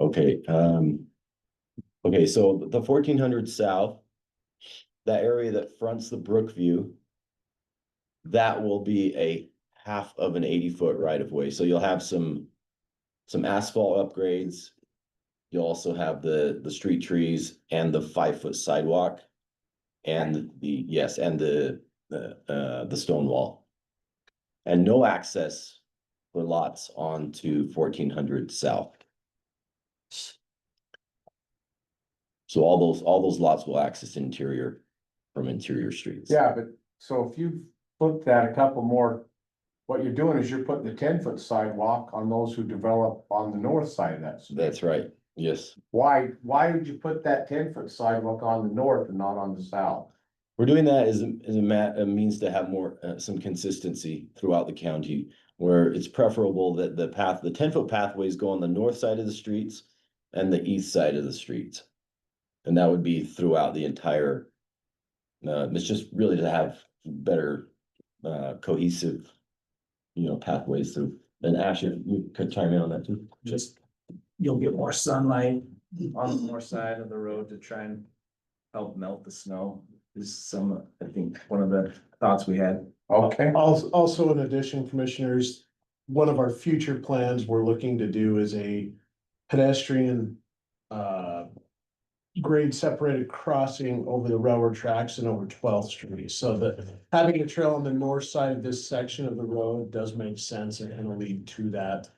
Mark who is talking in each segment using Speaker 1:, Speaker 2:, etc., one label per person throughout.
Speaker 1: Okay, um. Okay, so the fourteen hundred south. That area that fronts the Brookview. That will be a half of an eighty foot right of way, so you'll have some. Some asphalt upgrades. You'll also have the, the street trees and the five foot sidewalk. And the, yes, and the, the, uh, the stone wall. And no access for lots onto fourteen hundred south. So all those, all those lots will access interior from interior streets.
Speaker 2: Yeah, but so if you flip that a couple more, what you're doing is you're putting the ten foot sidewalk on those who develop on the north side of that.
Speaker 1: That's right, yes.
Speaker 2: Why, why would you put that ten foot sidewalk on the north and not on the south?
Speaker 1: We're doing that as, a- as a ma- a means to have more, uh, some consistency throughout the county. Where it's preferable that the path, the ten foot pathways go on the north side of the streets and the east side of the streets. And that would be throughout the entire. Uh, it's just really to have better, uh, cohesive. You know, pathways through, and Ash, if you could chime in on that too.
Speaker 3: just, you'll get more sunlight on the north side of the road to try and help melt the snow. This is some, I think, one of the thoughts we had.
Speaker 2: Okay,
Speaker 4: Also, also in addition, commissioners, one of our future plans we're looking to do is a pedestrian uh grade separated crossing over the railroad tracks and over Twelfth Street, so that having a trail on the north side of this section of the road does make sense and it'll lead to that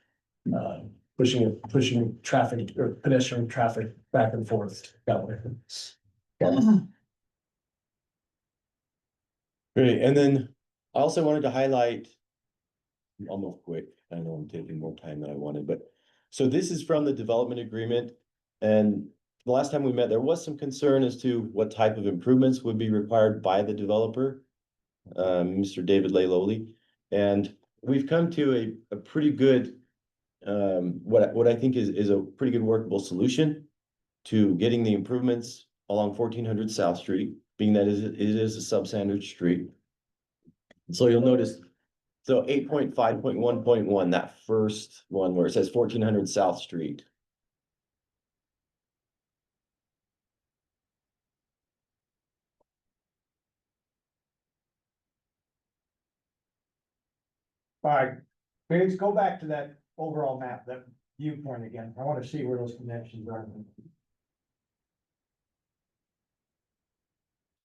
Speaker 4: uh pushing, pushing traffic or pedestrian traffic back and forth that way.
Speaker 1: Great, and then I also wanted to highlight. I'll move quick, I know I'm taking more time than I wanted, but, so this is from the development agreement. And the last time we met, there was some concern as to what type of improvements would be required by the developer. Um, Mr. David Layloli, and we've come to a, a pretty good. Um, what, I- what I think is, is a pretty good workable solution. To getting the improvements along fourteen hundred South Street, being that is- it is a substandard street. So you'll notice, so eight point five point one point one, that first one where it says fourteen hundred South Street.
Speaker 5: All right, Paige, go back to that overall map, that viewpoint again. I want to see where those connections are.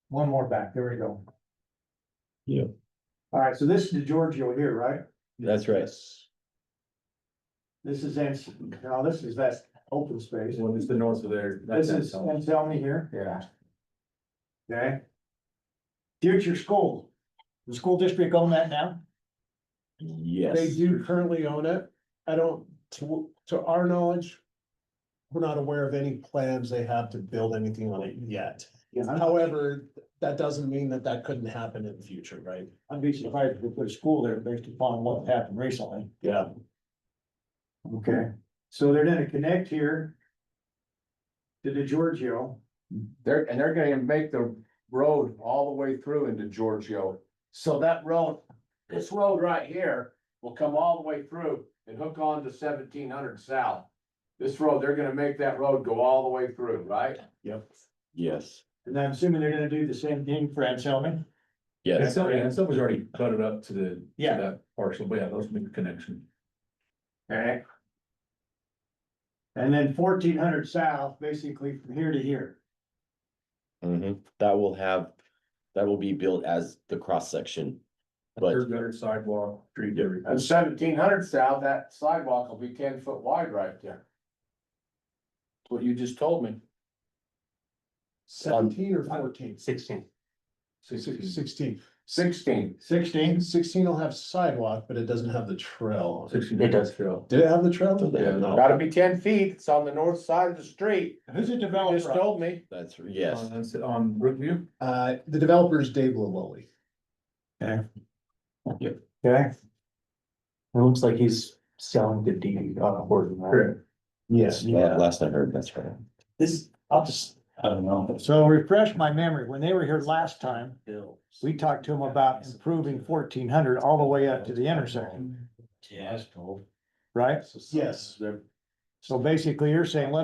Speaker 5: One more back, there we go.
Speaker 1: Yeah.
Speaker 5: All right, so this is the Giorgio here, right?
Speaker 1: That's right.
Speaker 5: This is, Anselm. now this is that open space.
Speaker 3: What is the north of there?
Speaker 5: This is Anselmi here,
Speaker 2: yeah,
Speaker 5: okay? Future school, the school district own that now?
Speaker 4: They
Speaker 1: Yes,
Speaker 4: do currently own it. I don't, to, to our knowledge, we're not aware of any plans they have to build anything on it yet.
Speaker 5: Yeah.
Speaker 4: However, that doesn't mean that that couldn't happen in the future, right?
Speaker 5: I'd be surprised if we put a school there based upon what happened recently.
Speaker 4: Yeah.
Speaker 5: Okay, so they're gonna connect here. To the Giorgio,
Speaker 2: they're, and they're gonna make the road all the way through into Giorgio. So that road, this road right here will come all the way through and hook on to seventeen hundred south. This road, they're gonna make that road go all the way through, right?
Speaker 1: yes,
Speaker 5: and I'm assuming they're gonna do the same thing for Anselmi.
Speaker 1: yes.
Speaker 3: something, and something's already butted up to the, to
Speaker 5: Yeah.
Speaker 3: that parcel, but yeah, those make the connection.
Speaker 5: Okay. And then fourteen hundred south, basically from here to here.
Speaker 1: Mhm. That will have, that will be built as the cross section. But
Speaker 3: Curb gutter sidewalk, street, everything.
Speaker 2: And seventeen hundred south, that sidewalk will be ten foot wide right there. What you just told me.
Speaker 4: Seventeen or fourteen?
Speaker 6: Sixteen.
Speaker 4: Sixteen. Sixteen.
Speaker 2: Sixteen.
Speaker 5: Sixteen,
Speaker 4: Sixteen will have sidewalk, but it doesn't have the trail. on it.
Speaker 3: Sixteen
Speaker 6: It does.
Speaker 3: industrial.
Speaker 4: Did it have the trail?
Speaker 3: Yeah,
Speaker 4: No.
Speaker 2: Gotta be ten feet, it's on the north side of the street,
Speaker 5: who's a
Speaker 2: you just
Speaker 5: developer?
Speaker 2: told me.
Speaker 1: that's, yes,
Speaker 3: On, on Brookview,
Speaker 4: Uh, the developer's Dave Lilly.
Speaker 5: Okay,
Speaker 6: It looks like he's selling the deed on a horse.
Speaker 3: correct.
Speaker 4: Yes.
Speaker 1: La- last I heard, that's right.
Speaker 6: This, I'll just, I don't know.
Speaker 5: so refresh my memory, when they were here last time, we talked to them about improving fourteen hundred all the way up to the intersection,
Speaker 6: Yes.
Speaker 5: right?
Speaker 4: Yes.
Speaker 5: So basically, you're saying, let